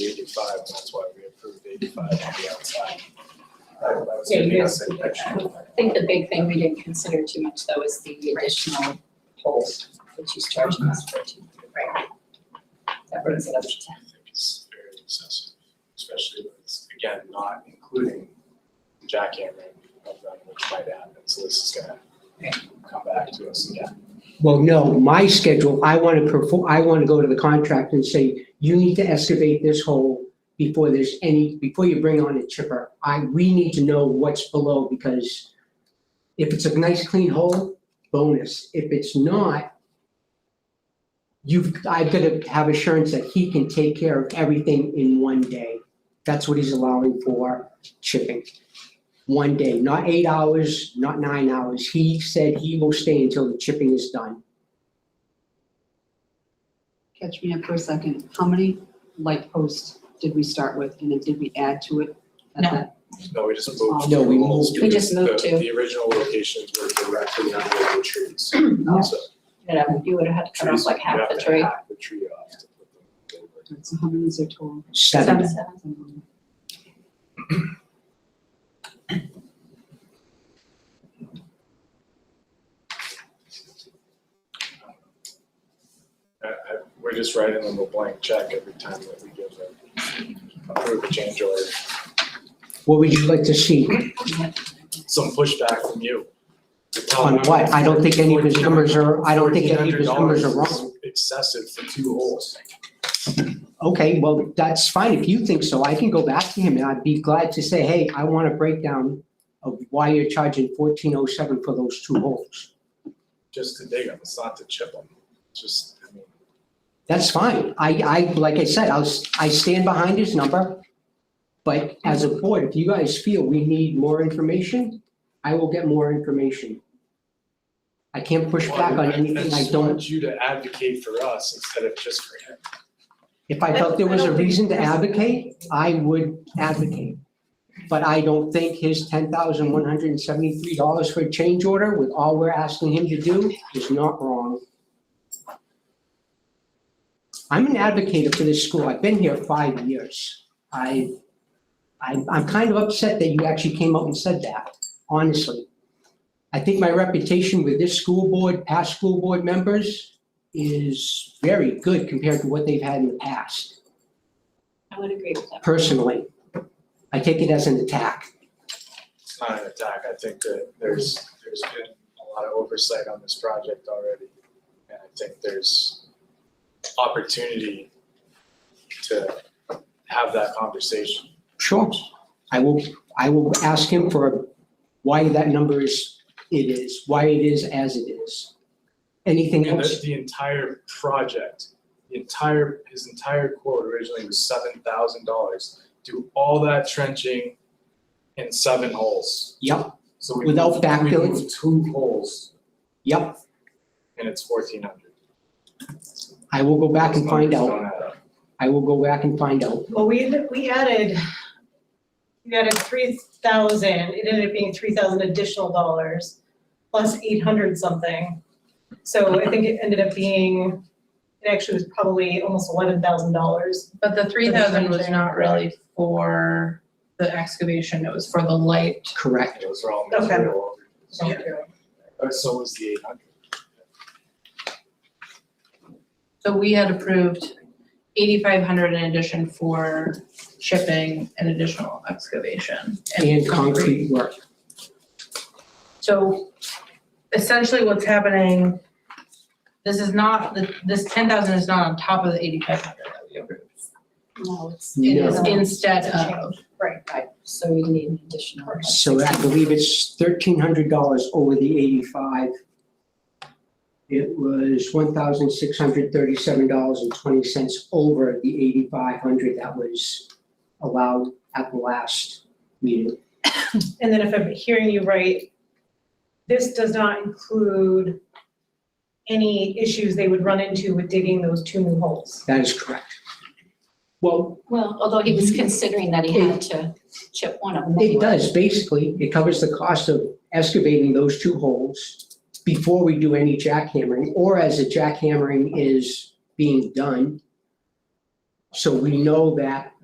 eighty-five, and that's why we approved eighty-five on the outside. That that was Yeah, gonna be you- our signature. I think the big thing we didn't consider too much though is the additional hold that she's charging us for too. Right. That brings it up to ten. I think it's very excessive, especially when it's, again, not including jackhammering of them, which might happen, so this is gonna come back to us again. Well, no, my schedule, I want to perform, I want to go to the contractor and say, you need to excavate this hole before there's any, before you bring on a chipper. I, we need to know what's below because if it's a nice clean hole, bonus. If it's not, you've, I've got to have assurance that he can take care of everything in one day. That's what he's allowing for chipping. One day, not eight hours, not nine hours. He said he will stay until the chipping is done. Catch me up for a second. How many light posts did we start with and then did we add to it? at No. that- No, we just moved. No, we the walls moved. We because just moved the- to- The original locations were directly under the trees. So Yeah, you would have had to cut off trees, Mm-hmm. like you half have the to tree. hack the tree off to put them over. So how many is there total? Seven. Um, I- I- We're just writing them a blank check every time that we give them, approve a change order. What would you like to see? Some pushback from you. You're telling On them what? I don't think any of his numbers are, I don't think any of his numbers are $1,400 is wrong. Excessive for two holes. Okay, well, that's fine. If you think so, I can go back to him and I'd be glad to say, hey, I want a breakdown of why you're charging fourteen oh seven for those two holes. just to dig them, it's not to chip them, It's just, I mean, That's fine. I, I, like I said, I'll, s- I stand behind his number. But as a board, if you guys feel we need more information, I will get more information. I can't push back on anything I just don't want you to advocate for us instead of just for him. If I felt there was a reason to advocate, I would advocate. But I don't think his ten thousand one hundred and seventy-three dollars for a change order with all we're asking him to do is not wrong. I'm an advocate for this school. I've been here five years. I, I, I'm kind of upset that you actually came out and said that, honestly. I think my reputation with this school board, past school board members, is very good compared to what they've had in the past, I would agree with that. personally. I take it as an attack. It's not an attack, I think that there's, there's been a lot of oversight on this project already. And I think there's opportunity to have that conversation. Sure. I will, I will ask him for why that number is, it is, why it is as it is. Anything And the, else? the entire project, the entire, his entire quote originally was seven thousand dollars. Do all that trenching in seven holes. Yep, So we Without moved, we backfilling? moved two holes yep. and it's fourteen hundred. I will go back and find out. I will go back and find out. Well, we, we added, we added three thousand, it ended up being three thousand additional dollars, plus eight hundred something. So I think it ended up being, it actually was probably almost eleven thousand dollars. But the three thousand was not really for the excavation, it was for the light. Correct. Those are all Okay. material. Uh, So was the eight hundred. So we had approved eighty-five hundred in addition for shipping and additional excavation. And concrete work. So essentially what's happening, this is not, this ten thousand is not on top of the eighty-five hundred that we approved. No, it's, It is No. instead of, Right, right, so we need an additional. So I believe it's thirteen hundred dollars over the eighty-five. It was one thousand six hundred thirty-seven dollars and twenty cents over the eighty-five hundred that was allowed at the last meeting. and then if I'm hearing you right, this does not include any issues they would run into with digging those two new holes. That is correct. Well, Well, although he was considering that he had to chip one of them. it does, basically, it covers the cost of excavating those two holes before we do any jackhammering, or as the jackhammering is being done. So we know that